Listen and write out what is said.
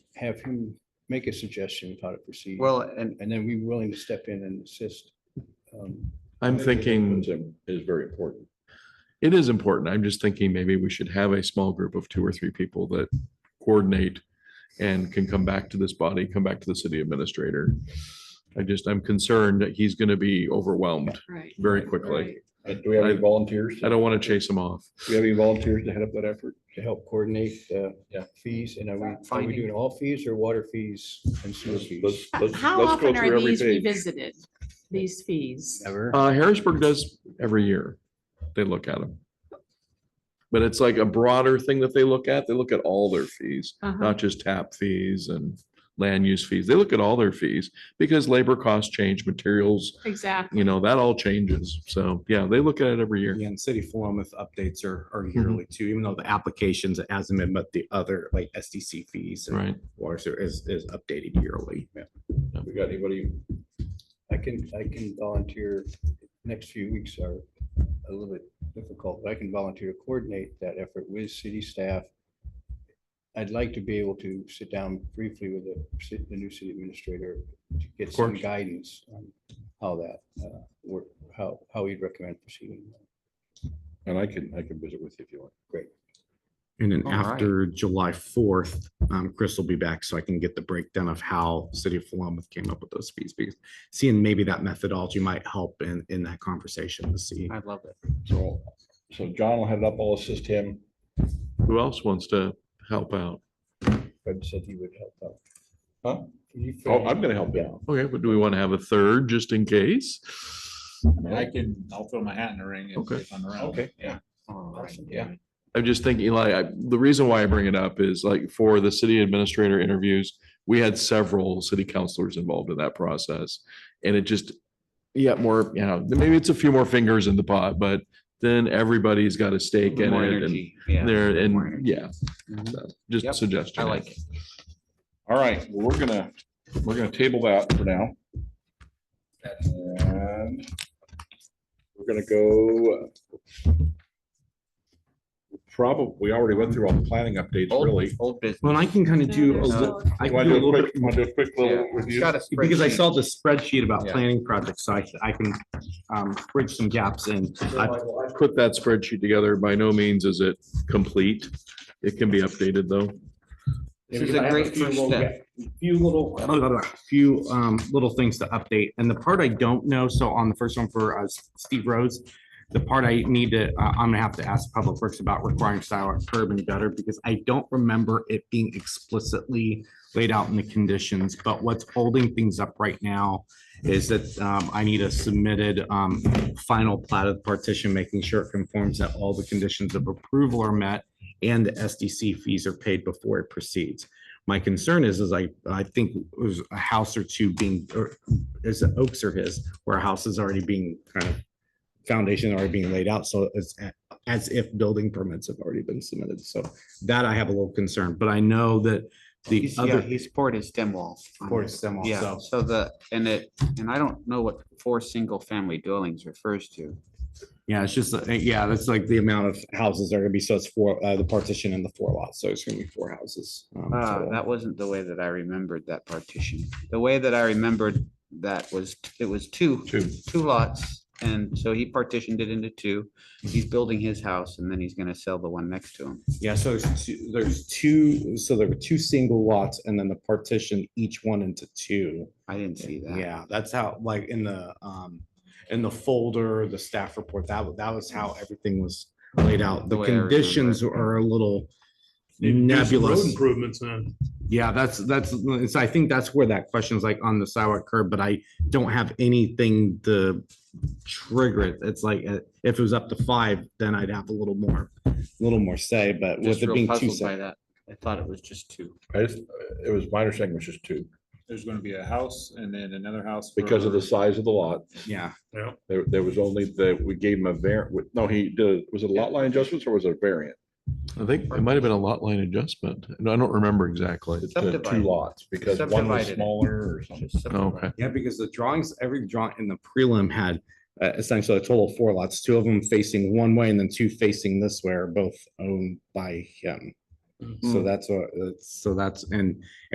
have him make a suggestion of how to proceed. Well, and And then we willing to step in and assist. um, I'm thinking Is very important. it is important. I'm just thinking maybe we should have a small group of two or three people that coordinate and can come back to this body, come back to the city administrator. I just, I'm concerned that he's going to be overwhelmed Right. very quickly. Right. uh, Do we have any volunteers? I don't want to chase him off. Do you have any volunteers to head up that effort to help coordinate the Yeah. fees? And are we, are we Finding- doing all fees or water fees and sewer Let's- fees? let's- let's- How let's go often through are every these page. revisited, these fees? Ever? Uh, Harrisburg does every year. They look at them. But it's like a broader thing that they look at. They look at all their fees, Uh-huh. not just tap fees and land use fees. They look at all their fees because labor costs change, materials, Exactly. you know, that all changes. So, yeah, they look at it every year. Yeah, and City Philomath updates are, are Mm-hmm. yearly too, even though the applications hasn't been, but the other like SDC fees and Right. water sewer is, is updated yearly. We got anybody? I can, I can volunteer. Next few weeks are a little bit difficult, but I can volunteer to coordinate that effort with city staff. I'd like to be able to sit down briefly with the, ci- the new city administrator to get Of some course. guidance on how that, uh, work, how, how he'd recommend proceeding. And I can, I can visit with you if you want. And then All right. after July fourth, um, Chris will be back so I can get the breakdown of how City of Philomath came up with those fees. Because seeing maybe that methodology might help in, in that conversation to see. I love it. So, so John will head it up. I'll assist him. Who else wants to help out? Fred said he would help out. Huh? You Oh, Fred, I'm gonna help you. Okay, but do we want to have a third just in case? I can, I'll throw my hat in the ring if- Okay. if I'm around. Okay. Yeah. Awesome. Yeah. I'm just thinking, Eli, I, the reason why I bring it up is like for the city administrator interviews, we had several city councilors involved in that process. And it just, yeah, more, you know, maybe it's a few more fingers in the pot, but then everybody's got a stake in More it energy. Yeah. and there more and energy. Mm-hmm. yeah. So, Just a Yep, suggestion. I like it. All right, well, we're gonna, we're gonna table that for now. And we're gonna go. Probably, we already went through all the planning updates, Old, really. old business. Well, I can kind of do a There's little, no- I can Want to do a Oh, do a little bit quick, want to do a quick Yeah. little review? Got a Because I spreadsheet. saw the spreadsheet about Yeah. planning projects, so I, I can, um, bridge some gaps in. I- Put that spreadsheet together. By no means is it complete. It can be updated though. This is a great first step. Few little, blah, blah, blah, few, um, little things to update. And the part I don't know, so on the first one for, uh, Steve Rhodes, the part I need to, uh, I'm gonna have to ask Public Works about requiring sidewalk curb and gutter because I don't remember it being explicitly laid out in the conditions, but what's holding things up right now is that, um, I need a submitted, um, final plat of partition, making sure it conforms that all the conditions of approval are met and the SDC fees are paid before it proceeds. My concern is, is I, I think it was a house or two being, or is it Oaks or his, where a house is already being kind of foundation already being laid out, so it's a- as if building permits have already been submitted, so that I have a little concern, but I know that the He's- yeah, other. He's poured his stem wall. on Poured it. his stem wall, Yeah, so- so the, and it, and I don't know what four single family dwellings refers to. Yeah, it's just, uh, yeah, that's like the amount of houses that are gonna be, so it's four, uh, the partition and the four lots, so it's gonna be four houses. um, Ah, total. that wasn't the way that I remembered that partition. The way that I remembered that was, it was two, Two. two lots. And so he partitioned it into two. He's building his house and then he's gonna sell the one next to him. Yeah, so there's two, there's two, so there were two single lots and then the partition each one into two. I didn't see that. Yeah, that's how, like, in the, um, in the folder, the staff report, that, wa- that was how everything was laid out. The The way I remember it. conditions are a little nebulous. Improvements in. Yeah, that's, that's, it's, I think that's where that question is like on the sidewalk curb, but I don't have anything to trigger it. It's like, uh, if it was up to five, then I'd have a little more, a little more say, but with Just it real being two. puzzled sep- by that. I thought it was just two. I just, it was my understanding it was just two, There's gonna be a house and then another house. because of for- the size of the lot. Yeah. Yeah. There, there was only the, we gave him a var, no, he did, was it a lot line adjustments or was it a variant? I think it might have been a lot line adjustment. No, I don't remember exactly. The Two Subdivided. lots, because one was Subdivided it. smaller or something. Just subdivided. Oh, Okay. Yeah, because the drawings, every drawing in the prelim had uh, essentially a total of four lots, two of them facing one way and then two facing this way are both owned by him. So that's what, that's- so that's, and